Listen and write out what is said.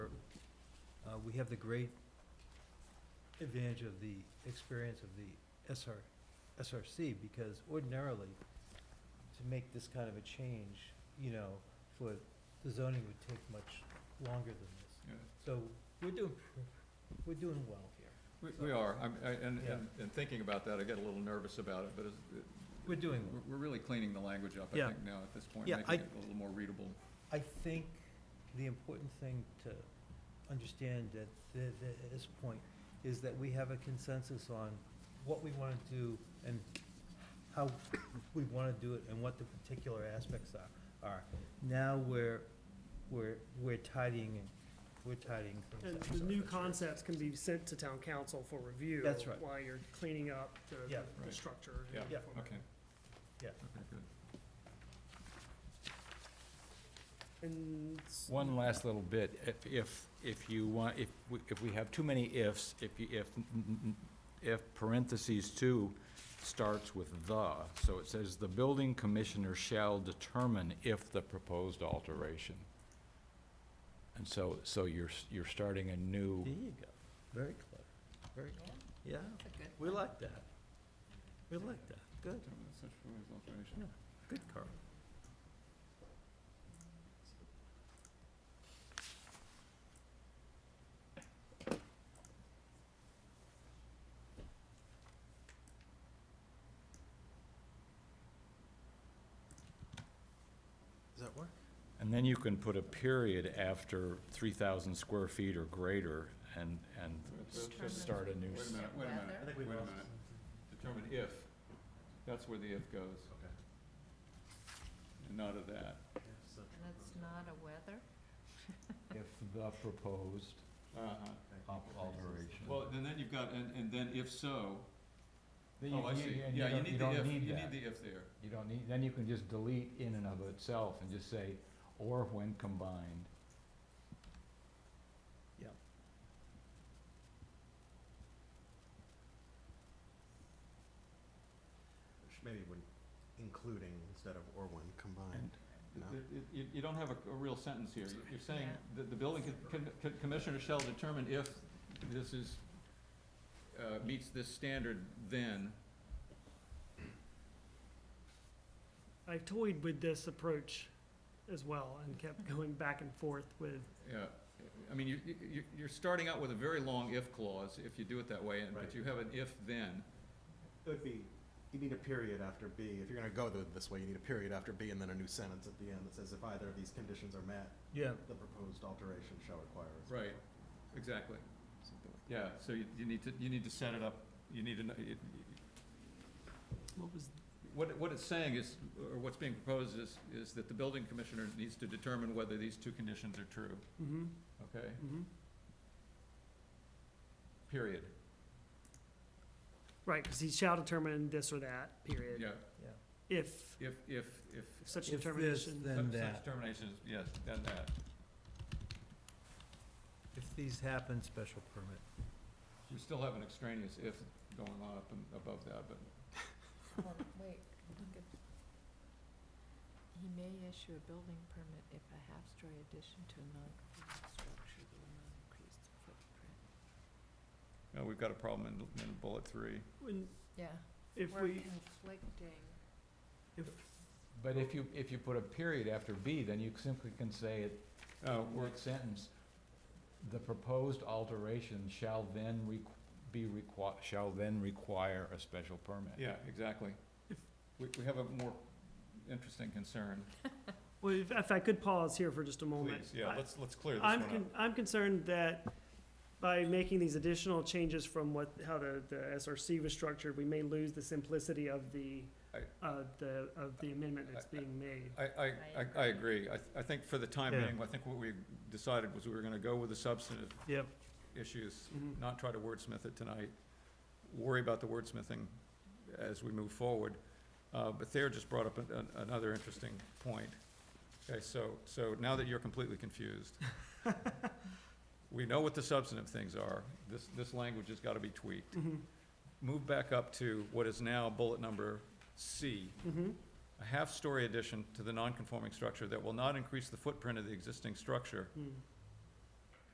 Uh, we have the great advantage of the experience of the SR, SRC, because ordinarily, to make this kind of a change, you know, for, the zoning would take much longer than this. Yeah. So we're doing, pr- we're doing well here. We, we are, I'm, I, and, Yeah. and, and thinking about that, I get a little nervous about it, but it's, it- We're doing well. we're, we're really cleaning the language up, I Yeah. think, now at this point, Yeah, making I- it a little more readable. I think the important thing to understand at, th- th- at this point is that we have a consensus on what we want to do and how we want to do it and what the particular aspects are, are. Now we're, we're, we're tidying, it- we're tidying things And up. the so new that's great. concepts can be sent to town council for review. That's right. While you're cleaning up the, Yeah. the- Right. the structure. Yeah, Yeah. okay. Yeah. Okay, good. And. s- One last little bit, if, if, if you want, if, we- if we have too many ifs, if, you- if, n- n- if parentheses two starts with the, so it says, the building commissioner shall determine if the proposed alteration. And so, so you're, s- you're starting a new, There you go. Very clever. Very, yeah, we like that. We like that. Good, Determine such proposed alteration. good, Carl. Does that work? and then you can put a period after three thousand square feet or greater and, and s- Determine- start a new. Wait s- a minute, wait a minute. I think we Wait a lost minute. Determine if, that's where the if goes. Okay. And not of that. And it's not a weather? If the proposed Uh-huh. op- alteration. Well, and then you've got, and, and then if so, Then oh, I you- see, you- and yeah, you don't- need the don't if, you need need that. the if there. You don't need, then you can just delete in and of itself and just say, or when combined. Maybe when including instead of or when combined. No. It- it- You, you don't have a, a real sentence here. You're- You're saying Yeah. that the building co- co- co- commissioner shall determine if this is, uh, meets this standard then. I toyed with this approach as well and kept going back and forth with, Yeah, uh, I mean, you, you, you're starting out with a very long if clause if you do it that way, and, but Right. you have an if then. It would be, you need a period after B. If you're gonna go th- this way, you need a period after B and then a new sentence at the end that says if either of these conditions are met, Yeah, the proposed alteration shall require. a special Right. Exactly. something like Yeah, so you, you need to, you need to set it up, you need to, kn- it- what was, what, it- what it's saying is, or what's being proposed is, is that the building commissioner needs to determine whether these two conditions are true, mm-hmm, okay? mm-hmm. Period. Right, because he shall determine this or that, period. Yeah, yeah. If if, if, if. if such If this, determination. then such- that. Such determination is, yes, then that. If these happen, special permit. We still have an extraneous if going on up and above that, but Well, wait, look at, he may issue a building permit if a half-story addition to a non-conforming structure will not increase the footprint. No, we've got a problem in, in bullet three. When- Yeah. If We're we, conflicting. if, But if you, if you put a period after B, then you simply can say it, Oh, word sentence, the proposed alteration shall then requ- be requi- shall then require a special permit. yeah, exactly. We, we have a more interesting concern. well, if- if I could pause here for just a moment. Please, yeah, I- let's, let's clear this one I'm, up. con- I'm concerned that by making these additional changes from what, how the, the SRC was structured, we may lose the simplicity of the, I- uh, the, of the amendment that's I- being made. I, I, I- I agree. I, th- I think for the time Yeah. being, I think what we decided was we were gonna go with the substantive Yep. issues, Mhm. not try to wordsmith it tonight, worry about the wordsmithing as we move forward. Uh, but Thayer just brought up an- an- another interesting point. Okay, so, so now that you're completely confused, we know what the substantive things are. This, this language has gotta be tweaked. Mhm, Move back up to what is now bullet number C. mhm. A half-story addition to the nonconforming structure that will not increase the footprint of the existing structure Mm.